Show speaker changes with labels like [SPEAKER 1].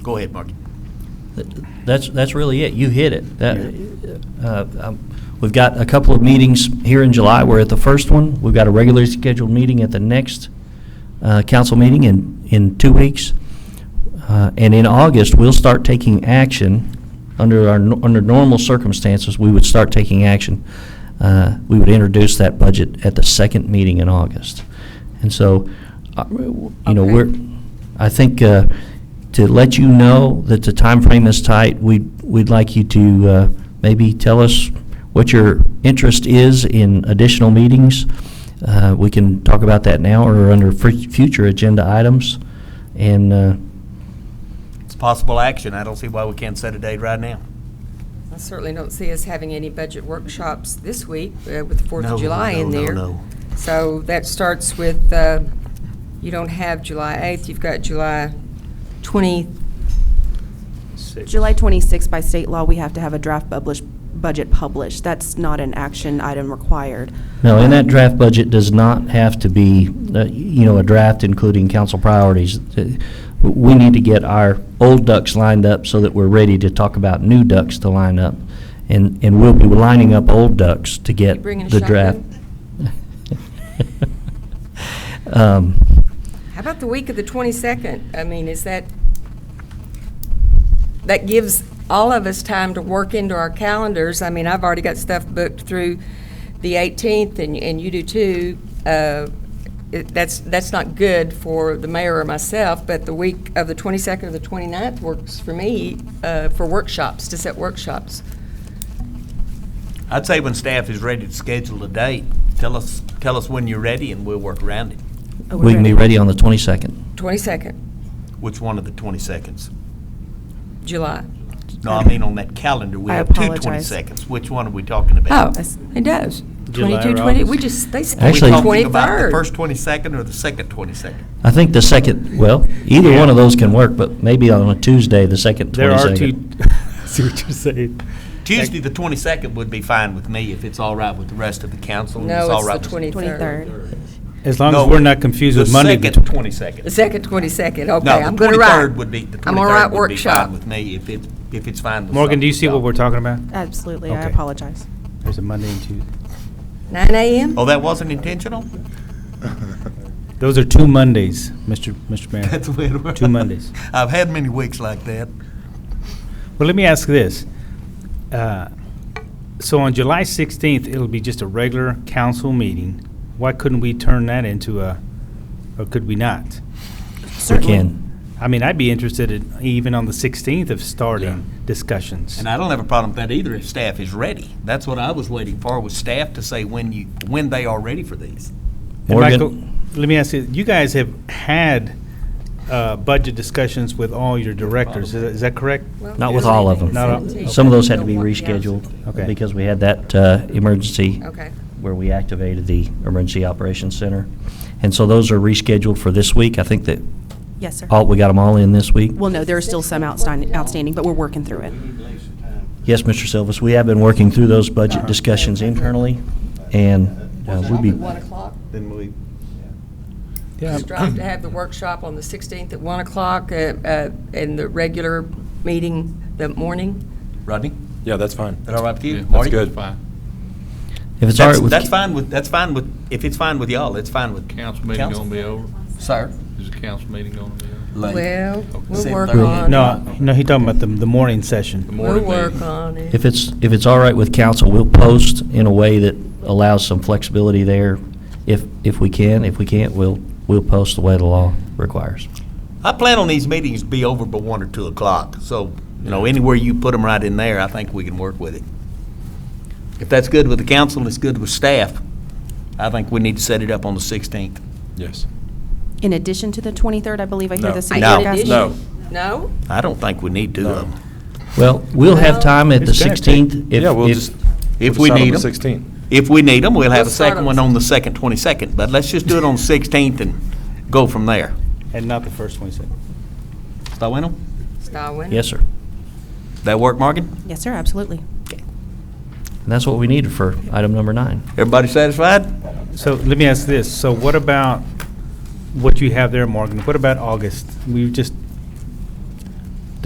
[SPEAKER 1] Go ahead, Mark.
[SPEAKER 2] That's, that's really it. You hit it. That, uh, um, We've got a couple of meetings here in July. We're at the first one. We've got a regularly scheduled meeting at the next uh, council meeting in, in two weeks. Uh, And in August, we'll start taking action. Under our, nor- under normal circumstances, we would start taking action. Uh, We would introduce that budget at the second meeting in August. And so, uh, you know,
[SPEAKER 3] Okay.
[SPEAKER 2] we're, I think uh, to let you know that the time frame is tight, we'd, we'd like you to uh, maybe tell us what your interest is in additional meetings. Uh, We can talk about that now or under fr- future agenda items. And uh,
[SPEAKER 1] It's possible action. I don't see why we can't set a date right now.
[SPEAKER 3] I certainly don't see us having any budget workshops this week uh, with the Fourth
[SPEAKER 1] No,
[SPEAKER 3] of July in
[SPEAKER 1] no, no,
[SPEAKER 3] there.
[SPEAKER 1] no.
[SPEAKER 3] So that starts with, uh, you don't have July 8th, you've got July 20th.
[SPEAKER 4] July 26th, by state law, we have to have a draft published, budget published. That's not an action item required.
[SPEAKER 2] No, and that draft budget does not have to be, uh, you know, a draft including council priorities. Uh, We need to get our old ducks lined up so that we're ready to talk about new ducks to line up. And, and we'll be lining up old ducks to get
[SPEAKER 3] bringing a
[SPEAKER 2] the draft. Um,
[SPEAKER 3] How about the week of the 22nd? I mean, is that, that gives all of us time to work into our calendars. I mean, I've already got stuff booked through the 18th, and, and you do too. Uh, it- That's, that's not good for the mayor or myself, but the week of the 22nd or the 29th works for me uh, for workshops, to set workshops.
[SPEAKER 1] I'd say when staff is ready to schedule a date, tell us, tell us when you're ready and we'll work around it.
[SPEAKER 4] Uh, we're
[SPEAKER 2] We can be ready on the 22nd.
[SPEAKER 3] 22nd,
[SPEAKER 1] Which one of the 22nds?
[SPEAKER 3] July.
[SPEAKER 1] No, I mean on that calendar, we
[SPEAKER 4] I
[SPEAKER 1] have two
[SPEAKER 4] apologize.
[SPEAKER 1] 22nds. Which one are we talking about?
[SPEAKER 3] Oh,
[SPEAKER 4] That's-
[SPEAKER 3] it does.
[SPEAKER 5] July or
[SPEAKER 3] 22, 20, we just,
[SPEAKER 5] August?
[SPEAKER 3] they
[SPEAKER 1] Are we
[SPEAKER 2] Actually-
[SPEAKER 3] skipped
[SPEAKER 1] talking about the
[SPEAKER 3] 23rd.
[SPEAKER 1] first 22nd or the second 22nd?
[SPEAKER 2] I think the second, well, either one of those can work, but maybe on a Tuesday, the second 22nd.
[SPEAKER 5] There are two, I see what you're saying.
[SPEAKER 1] Tuesday, the 22nd would be fine with me if it's all right with the rest of the council. and
[SPEAKER 3] No,
[SPEAKER 1] all right
[SPEAKER 3] it's the
[SPEAKER 1] with-
[SPEAKER 4] 23rd.
[SPEAKER 5] As long
[SPEAKER 1] No,
[SPEAKER 5] as we're not confused with Monday.
[SPEAKER 1] The
[SPEAKER 5] the
[SPEAKER 1] second 22nd.
[SPEAKER 3] The second, 22nd,
[SPEAKER 1] No,
[SPEAKER 3] okay,
[SPEAKER 1] the
[SPEAKER 3] I'm going to write.
[SPEAKER 1] 23rd would be, the
[SPEAKER 3] I'm all right
[SPEAKER 1] 23rd would be
[SPEAKER 3] workshop.
[SPEAKER 1] fine with me if it, if it's fine with.
[SPEAKER 5] Morgan, do you
[SPEAKER 1] some-
[SPEAKER 5] see what we're talking about?
[SPEAKER 4] Absolutely, I
[SPEAKER 5] Okay.
[SPEAKER 4] apologize.
[SPEAKER 5] There's a Monday and Tuesday.
[SPEAKER 3] 9 a.m.?
[SPEAKER 1] Oh, that wasn't intentional?
[SPEAKER 5] Those are two Mondays, Mr. Mr. Mayor.
[SPEAKER 1] That's weird.
[SPEAKER 5] Two Mondays.
[SPEAKER 1] I've had many weeks like that.
[SPEAKER 5] Well, let me ask this. Uh, So on July 16th, it'll be just a regular council meeting. Why couldn't we turn that into a, or could we not?
[SPEAKER 2] We
[SPEAKER 4] Certainly.
[SPEAKER 2] can.
[SPEAKER 5] I mean, I'd be interested in even on the 16th of starting discussions.
[SPEAKER 1] And I don't have a problem with that either if staff is ready. That's what I was waiting for, was staff to say when you, when they are ready for these.
[SPEAKER 5] And
[SPEAKER 2] Morgan?
[SPEAKER 5] Michael, let me ask you, you guys have had uh, budget discussions with all your directors, is that- is that correct?
[SPEAKER 2] Not with all of them.
[SPEAKER 5] Not all-
[SPEAKER 2] Some of those had to be rescheduled
[SPEAKER 5] Okay.
[SPEAKER 2] because we had that uh, emergency
[SPEAKER 3] Okay.
[SPEAKER 2] where we activated the Emergency Operations Center. And so those are rescheduled for this week. I think that,
[SPEAKER 4] Yes, sir.
[SPEAKER 2] all we got them all in this week.
[SPEAKER 4] Well, no, there are still some outstanding, outstanding, but we're working through it.
[SPEAKER 2] Yes, Mr. Silvas, we have been working through those budget discussions internally, and uh, we'll be,
[SPEAKER 3] 1 o'clock,
[SPEAKER 6] Then we,
[SPEAKER 5] Yeah.
[SPEAKER 3] strive to have the workshop on the 16th at 1 o'clock, uh, uh, and the regular meeting the morning.
[SPEAKER 1] Rodney, is
[SPEAKER 7] Yeah, that's fine.
[SPEAKER 1] that all right with you?
[SPEAKER 7] That's
[SPEAKER 1] Marty?
[SPEAKER 7] good.
[SPEAKER 2] if it's all
[SPEAKER 1] That's,
[SPEAKER 2] right with,
[SPEAKER 1] that's fine with, that's fine with, if it's fine with y'all, it's fine with.
[SPEAKER 8] Council meeting
[SPEAKER 1] Council?
[SPEAKER 8] gonna be over?
[SPEAKER 1] Sir?
[SPEAKER 8] Is the council meeting gonna be over?
[SPEAKER 1] Late.
[SPEAKER 3] Well, we'll
[SPEAKER 1] Seven
[SPEAKER 3] work
[SPEAKER 1] thirty.
[SPEAKER 3] on it.
[SPEAKER 5] No, no, he talking about the, the morning
[SPEAKER 8] The
[SPEAKER 5] session.
[SPEAKER 3] We'll
[SPEAKER 8] morning meeting?
[SPEAKER 3] work on it.
[SPEAKER 2] if it's, if it's all right with council, we'll post in a way that allows some flexibility there if, if we can. If we can't, we'll, we'll post the way the law requires.
[SPEAKER 1] I plan on these meetings to be over by one or two o'clock, so, you know, anywhere you put them right in there, I think we can work with it. If that's good with the council, and it's good with staff, I think we need to set it up on the sixteenth.
[SPEAKER 7] Yes.
[SPEAKER 4] In addition to the 23rd, I believe I hear
[SPEAKER 7] No.
[SPEAKER 4] the city
[SPEAKER 3] No.
[SPEAKER 4] discussing.
[SPEAKER 7] No.
[SPEAKER 3] No?
[SPEAKER 1] I don't think we need um, two of them.
[SPEAKER 2] Well, we'll have time at the
[SPEAKER 5] It's gonna take-
[SPEAKER 2] 16th. if-
[SPEAKER 7] Yeah, we'll
[SPEAKER 2] if-
[SPEAKER 7] just.
[SPEAKER 1] If
[SPEAKER 7] we'll
[SPEAKER 1] we
[SPEAKER 7] decide on
[SPEAKER 1] need
[SPEAKER 7] the
[SPEAKER 1] them.
[SPEAKER 7] 16.
[SPEAKER 1] If we need them, we'll have a
[SPEAKER 3] Let's start
[SPEAKER 1] second
[SPEAKER 3] on
[SPEAKER 1] one on the second, twenty-second, but let's just do it on the sixteenth and go from there.
[SPEAKER 5] And not the first one, he said.
[SPEAKER 1] Is that winning?
[SPEAKER 3] Stallings?
[SPEAKER 2] Yes, sir. And
[SPEAKER 1] That work, Morgan?
[SPEAKER 4] Yes, sir, absolutely.
[SPEAKER 2] that's what we needed for item number nine.
[SPEAKER 1] Everybody satisfied?
[SPEAKER 5] So let me ask this, so what about what you have there, Morgan? What about August? We just